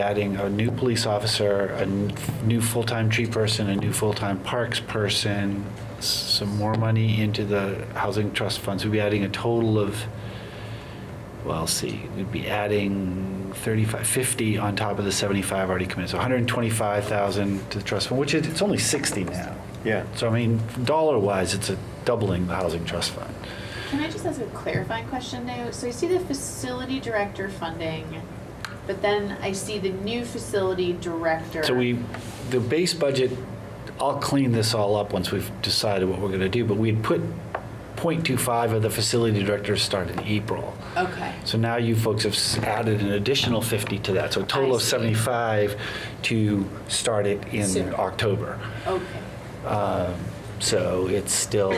adding a new police officer, a n- new full-time tree person, a new full-time parks person, s- some more money into the housing trust funds. We'd be adding a total of, well, let's see, we'd be adding 35, 50 on top of the 75 already committed. So 125,000 to the trust fund, which is, it's only 60 now. Yeah. So I mean, dollar-wise, it's a doubling the housing trust fund. Can I just ask a clarifying question now? So I see the facility director funding, but then I see the new facility director. So we, the base budget, I'll clean this all up once we've decided what we're gonna do, but we had put .25 of the facility director's start in April. Okay, So now you folks have s- added an additional 50 to that, so a total of I see. 75 to start it in Soon. October. okay. Um, So it's still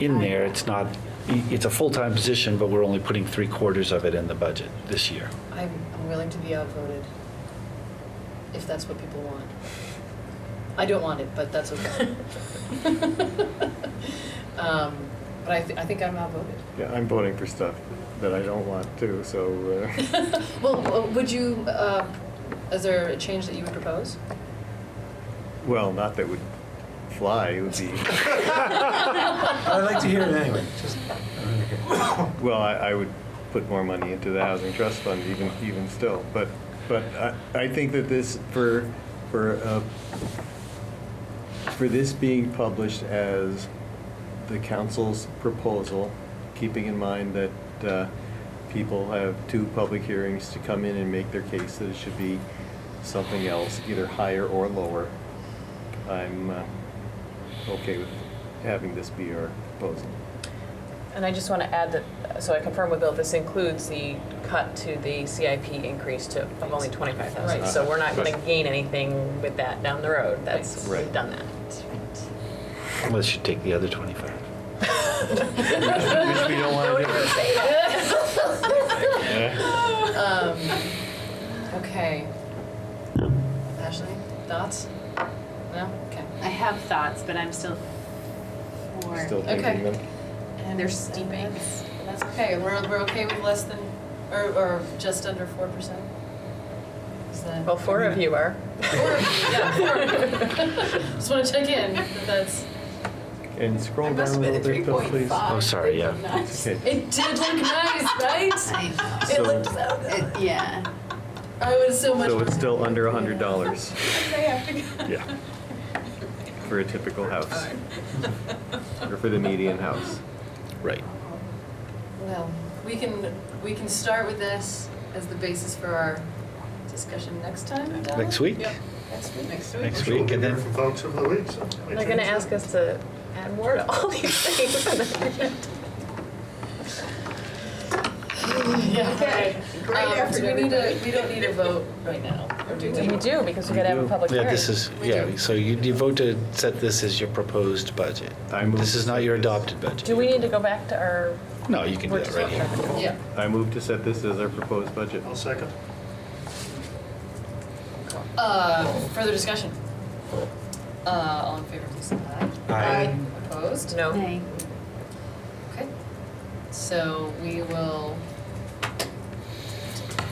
in there, it's not, i- it's a full-time position, but we're only putting three quarters of it in the budget this year. I'm, I'm willing to be outvoted, if that's what people want. I don't want it, but that's okay. Um, But I, thi- I think I'm outvoted. Yeah, I'm voting for stuff that I don't want to, so, uh, Well, w- would you, uh, is there a change that you would propose? well, not that would fly, it would be, I'd like to hear it anyway, just, well, I, I would put more money into the housing trust fund even, even still. But, but I, I think that this, for, for, uh, for this being published as the council's proposal, keeping in mind that uh, people have two public hearings to come in and make their case that it should be something else, either higher or lower, I'm uh, okay with having this be our proposal. And I just want to add that, so I confirm with Bill, this includes the cut to the CIP increase to, of only 25,000. Right. So we're not going to gain anything with that down the road. That's, Right. we've done that. Unless you take the other 25. Which we don't want to do. Okay. Ashley, thoughts? No? Okay. I have thoughts, but I'm still for. Still Okay. thinking them. And They're and steeping. That's that's okay, we're, we're okay with less than, or, or just under four percent? Is that? Well, four of you are. Four of you, yeah, four of you. Just wanna check in, that that's, And scroll I down must a have been little at bit, Bill, please. 3.5. Oh, sorry, yeah. Nuts. Okay. it did look nice, right? It So- looked so good. It- Yeah. I was so much. So it's more- still under a hundred dollars. Yeah. For a typical house. Or for the median house. Right. Well, we can, we can start with this as the basis for our discussion next time, Donna? Next week? Yep, next week. Next week. Next we'll week, be and there then from folks over the week, so. They're going to ask us to add more to all these things. Yeah, all right. Great Um, effort, do we need a, we don't need a vote right now, or do we? We do, because we got to have a public Yeah, hearing. this is, yeah, so you you vote to set this as your proposed budget. I move This is to not set your this. adopted budget. Do we need to go back to our? No, you can do that right here. Yeah. I move to set this as our proposed budget. I'll second. Uh, further discussion? Uh, all in favor, please say aye. Aye. Opposed? No. Okay. So we will t-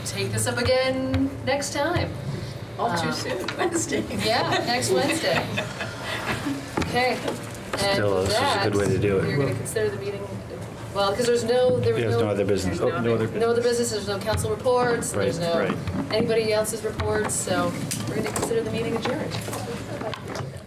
take this up again next time. All too Um, soon, Wednesday. Yeah, next Wednesday. Okay. And Still, with this is a that, good way to do it. We're gonna consider the meeting, well, because there's no, there was no. There's no other business. there's Oh, no other No other business, there's no council reports, there's Right, no right. anybody else's reports, so we're gonna consider the meeting adjourned.